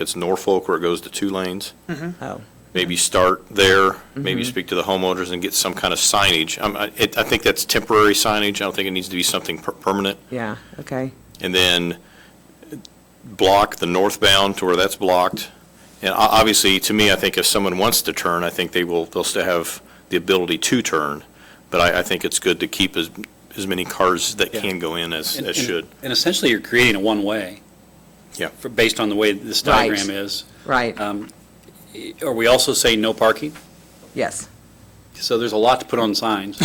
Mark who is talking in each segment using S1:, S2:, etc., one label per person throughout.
S1: It's Norfolk where it goes to two lanes.
S2: Oh,
S1: Maybe start there, maybe
S3: Mm-hmm.
S1: speak to the homeowners and get some kind of signage. Um, I, it- I think that's temporary signage. I don't think it needs to be something per- permanent.
S2: yeah, okay,
S1: and then block the northbound to where that's blocked. And o- obviously, to me, I think if someone wants to turn, I think they will, they'll still have the ability to turn. But I, I think it's good to keep as, as many cars that
S3: Yeah.
S1: can go in as,
S3: And-
S1: as
S3: and-
S1: should.
S3: And essentially, you're creating a one-way.
S1: Yeah.
S3: for- Based on the way this
S2: Right.
S3: diagram is.
S2: right,
S3: Um, Are we also saying no parking?
S2: yes.
S3: So there's a lot to put on signs,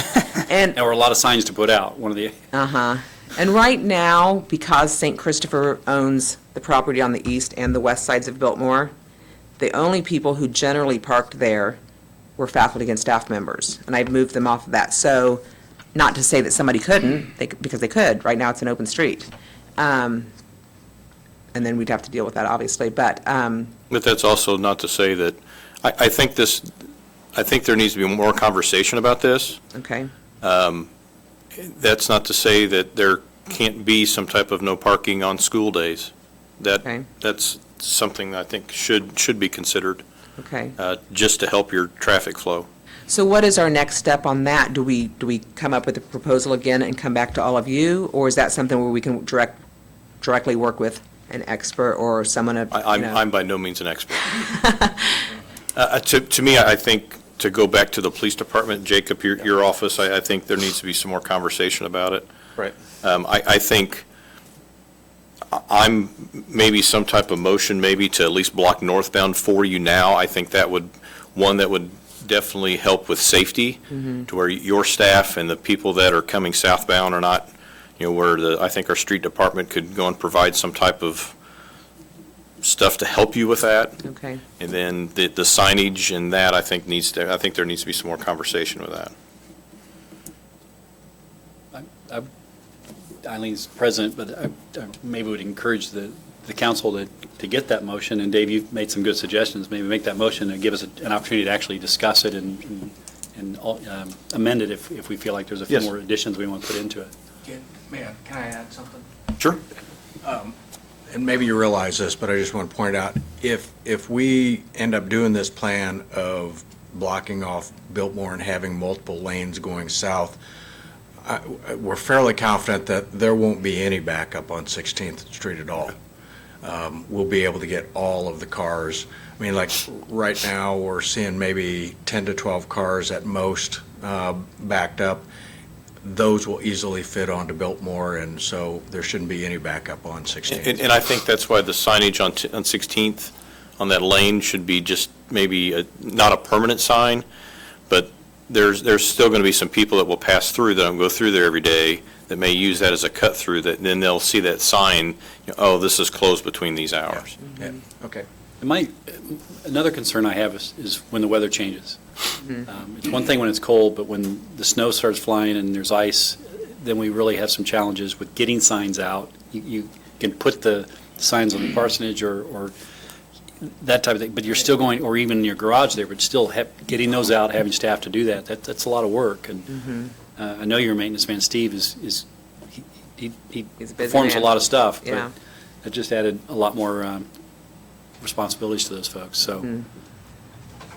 S2: And,
S3: or a lot of signs to put out, one of the,
S2: uh-huh. And right now, because St. Christopher owns the property on the east and the west sides of Biltmore, the only people who generally parked there were faculty and staff members, and I've moved them off of that. So, not to say that somebody couldn't, they, c- because they could, right now it's an open street. Um, And then we'd have to deal with that, obviously, but, um,
S1: But that's also not to say that, I, I think this, I think there needs to be more conversation about this.
S2: okay,
S1: That's not to say that there can't be some type of no parking on school days.
S2: Okay.
S1: That, that's something I think should, should be considered.
S2: okay.
S1: uh, just to help your traffic flow.
S2: So what is our next step on that? Do we, do we come up with a proposal again and come back to all of you? Or is that something where we can direct, directly work with an expert or someone of,
S1: I- I'm,
S2: you know?
S1: I'm by no means an expert. Uh, uh, To, to me, I I think, to go back to the police department, Jacob, your, your office, I, I think there needs to be some more conversation about it.
S4: Right.
S1: Um, I, I think I- I'm, maybe some type of motion, maybe to at least block northbound for you now. I think that would, one, that would definitely help with safety,
S2: Mm-hmm.
S1: to where your staff and the people that are coming southbound are not, you know, where the, I think our street department could go and provide some type of stuff to help you with that.
S2: Okay,
S1: And then the, the signage and that, I think needs to, I think there needs to be some more conversation with that.
S3: Eileen's president, but I- I maybe would encourage the, the council to, to get that motion, and Dave, you've made some good suggestions, maybe make that motion and give us an opportunity to actually discuss it and, and- and um, amend it if, if we feel like there's a few
S1: Yes.
S3: more additions we want to put into it.
S5: Can- Mayor, can I add something?
S1: Sure.
S5: And maybe you realize this, but I just want to point out, if, if we end up doing this plan of blocking off Biltmore and having multiple lanes going south, I- we're fairly confident that there won't be any backup on 16th Street at all. Um, We'll be able to get all of the cars. I mean, like, right now, we're seeing maybe 10 to 12 cars at most uh, backed up. Those will easily fit onto Biltmore, and so there shouldn't be any backup on 16th.
S1: And, and I think that's why the signage on, t- on 16th, on that lane, should be just maybe a- not a permanent sign, but there's, there's still going to be some people that will pass through, that don't go through there every day, that may use that as a cut-through, that then they'll see that sign, you know, oh, this is closed between these hours.
S5: Yeah, Okay.
S3: And My, another concern I have is, is when the weather changes.
S2: Mm-hmm.
S3: Um, It's one thing when it's cold, but when the snow starts flying and there's ice, then we really have some challenges with getting signs out. You- You can put the signs on the parsonage or, or that type of thing, but you're still going, or even in your garage there, but still have, getting those out, having staff to do that, that, that's a lot of work.
S2: Mm-hmm.
S3: And uh, I know your maintenance man, Steve, is, is, he- he, he
S2: He's a busy
S3: performs a
S2: man.
S3: lot of stuff. but
S2: Yeah.
S3: That just added a lot more um, responsibilities to those folks,
S2: Mm-hmm.
S3: so.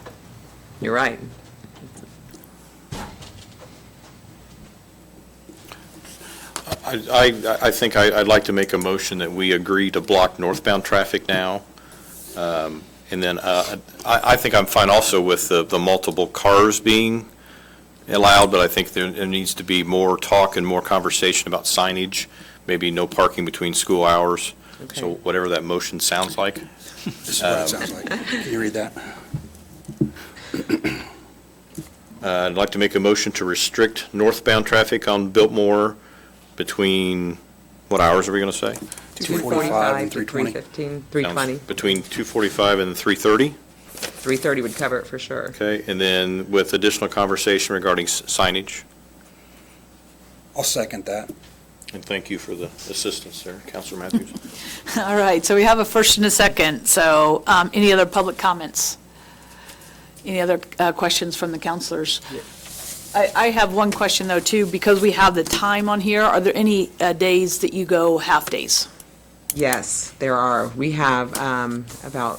S2: you're right.
S1: I, I, I think I, I'd like to make a motion that we agree to block northbound traffic now. Um, And then, uh, I, I think I'm fine also with the, the multiple cars being allowed, but I think there, there needs to be more talk and more conversation about signage, maybe no parking between school hours. So
S2: Okay.
S1: whatever that motion sounds like.
S6: This is what it sounds like. Can you read that?
S1: Uh, I'd like to make a motion to restrict northbound traffic on Biltmore between, what hours are we going to say?
S6: 245 and
S2: 320.
S6: 320.
S2: 315, 320,
S1: Between 2:45 and 3:30?
S2: 330 would cover it for sure.
S1: Okay, and then with additional conversation regarding s- signage,
S6: I'll second that.
S1: and thank you for the assistance there, Counselor Matthews.
S7: All right, so we have a first and a second, so um, any other public comments? Any other uh, questions from the counselors? I I have one question, though, too, because we have the time on here, are there any uh, days that you go half-days?
S2: Yes, there are. We have um, about